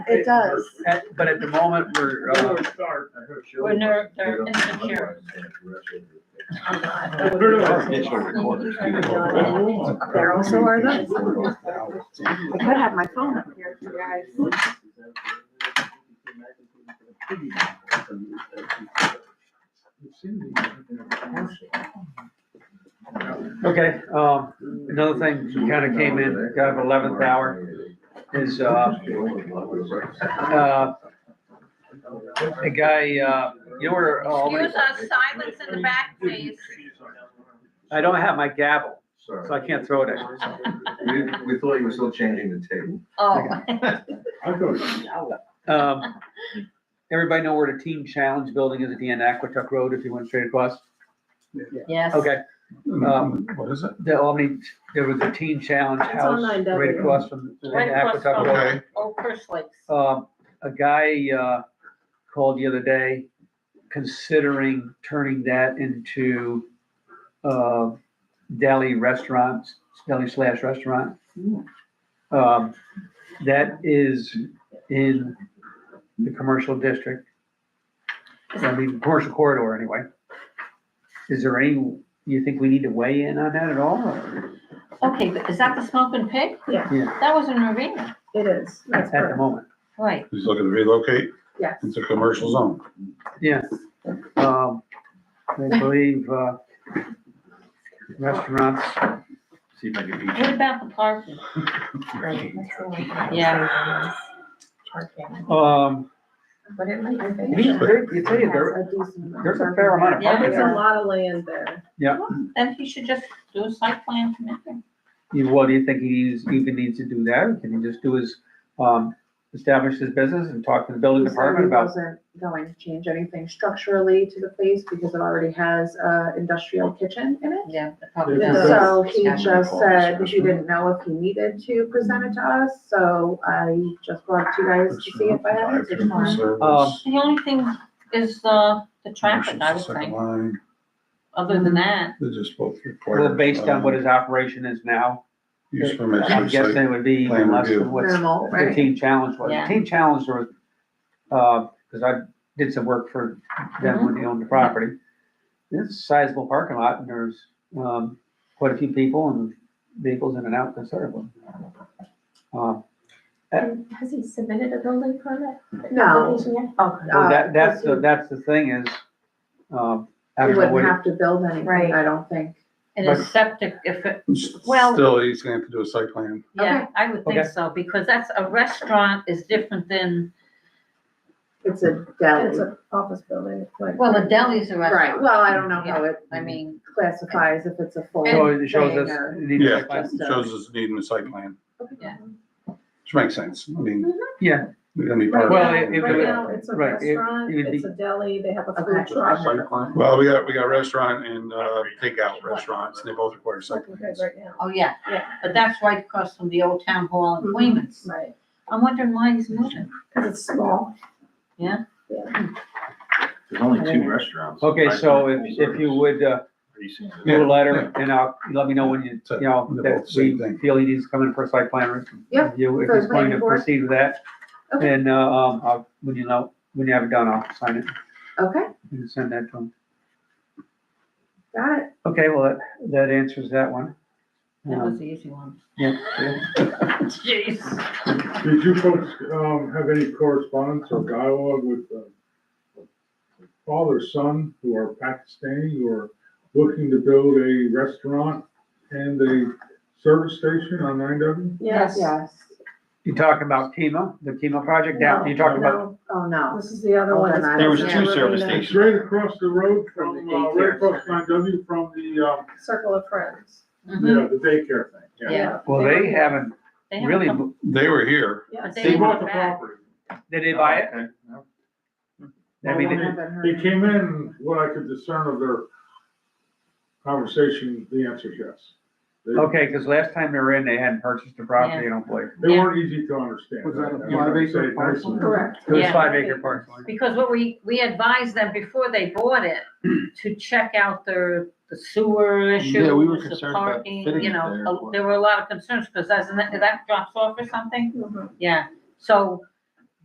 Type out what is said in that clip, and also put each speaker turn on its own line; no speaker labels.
It does.
At- But at the moment, we're, uh,
We're ner, they're insecure.
There also are those. I could have my phone up here for you guys.
okay, um, another thing kind of came in, kind of eleventh hour, is, uh, uh, a guy, uh, you know where, uh, all
Excuse
the-
us, silence in the back, please.
I don't have my gavel, so I
Sorry.
can't throw it at you.
We, we thought you were still changing the table.
Oh,
Um, everybody know where the Team Challenge building is at the end of Aquatuck Road, if you went straight across?
yes.
Okay, um,
What is it?
the Omni, there was a Teen Challenge
It's
House
online,
right
Doug.
across from the
Right across
Aquatuck
from-
Road.
Okay.
Oh, First Lakes.
Um, a guy, uh, called the other day considering turning that into, uh, deli restaurants, deli slash restaurant. Um, that is in the commercial district. I mean, commercial corridor anyway. Is there any, you think we need to weigh in on that at all? or-
Okay, but is that the smoking pig?
Yeah.
Yeah.
That was in Ravenna,
It is, that's
At the
correct,
moment.
right.
He's looking to relocate
yes.
into commercial zone.
Um, I believe, uh, restaurants,
See if I can eat.
What about the parking? Yeah.
um,
But it might
we- there- you tell you, there, there's a fair amount of
Yeah.
parking
There's a
there.
lot of land there.
Then he should just do a site plan commitment.
You- What do you think he's, even needs to do that? Can he just do his, um, establish his business and talk to the building
He said he
department about?
wasn't going to change anything structurally to the place because it already has uh, a industrial kitchen in it.
Yeah.
Yeah.
So he just said he didn't know if he needed to present it to us, so I just brought it to you guys to see if I had it tomorrow.
Um,
The only thing is, uh, the traffic, I would think. Other than that,
They're just both required.
Well, based on what his operation is now,
Use permits
I'm
for
guessing
site.
it would be even
plan
less than
review.
what's
Minimal,
the
right?
team challenge was.
Yeah.
The team challenge was, uh, cause I did some work for them when they owned the property. It's a sizable parking lot and there's, um, quite a few people and vehicles in and out considerably. Um,
Has he submitted a building permit?
No,
Application yet?
oh,
well, that, that's
uh,
the, that's the thing is, um,
He
I don't know what,
wouldn't
it-
have to build anything,
Right.
I don't think.
in a septic, if it, Well-
Still, he's gonna have to do a site plan.
yeah, I would think
Okay.
so, because that's, a restaurant is different than,
It's a
Uh, It's
deli.
an office building. it's like-
well, a deli's a
Right,
restaurant.
well, I don't know how it
I mean,
classifies if it's a full.
so it shows us.
thing or-
it needs to
Yeah.
be classified.
So-
Shows us needing a site plan,
yeah.
which makes sense. I mean.
Mm-hmm.
Yeah.
They're gonna be
Right
part of
Well,
now-
it- it
Right
would-
now, it's a
right, it- it
restaurant,
would
it's
be-
a deli, they have a
Okay.
food truck.
it. Well, we got, we got restaurant and, uh, takeout restaurants, and they both require
It's
site
looking good
plans.
right now.
Oh, yeah,
Yeah.
but that's right across from the old town hall in
Mhm.
Queens.
Right.
I'm wondering why he's moving.
Cause it's small.
There's only two restaurants.
Okay, so if, if you would, uh, do a letter and I'll, let me know when you, you know,
They're both
that
the
we
same thing.
feel he needs to come in for a site plan
Yeah,
review. If
for
he's
the
going to
planning board.
proceed with that,
Okay.
then, uh, um, I'll, when you know, when you have it done, I'll sign it
Okay,
and send that to him.
got it.
Okay, well, that, that answers that one.
That was
Um,
the easy one.
yeah, yeah.
Jeez.
Did you folks, um, have any correspondence or dialogue with, uh, father, son, who are Pakistani, who are looking to build a restaurant and a service station on nine W?
Yes.
Yes.
You talking about Kima, the Kima project down, you talking about,
No, Oh, no.
This is the other one.
Hold on,
that's
I- There was
down
two
in
service
the
stations.
It's right across the road
From
from,
the
uh,
daycare
right across nine W from the, um,
Circle of friends.
Mm-hmm.
Mhm.
yeah, the daycare thing, yeah.
Yeah.
well, they haven't
They have a
really,
couple-
They were here.
but
Yes.
they
They
didn't
bought
go
the
back.
property.
did they buy it? I mean,
I
they-
haven't
They
heard.
came in, what I could discern of their conversation, the answer is yes. They-
okay, because last time they were in, they hadn't purchased the property, I don't believe.
They
Yeah.
weren't easy to understand.
Was that a
I- I would
five-acre
say
parcel?
that's-
Correct.
It was
Yeah.
five acre parcel.
Because what we, we advised them before they bought it to check out their, the sewer issues,
Yeah, we were
the
concerned about
parking,
fitting
you
it there.
Uh-huh.
know, a- there were a lot of concerns, because that's, that drops off or something,
Mhm.
yeah. So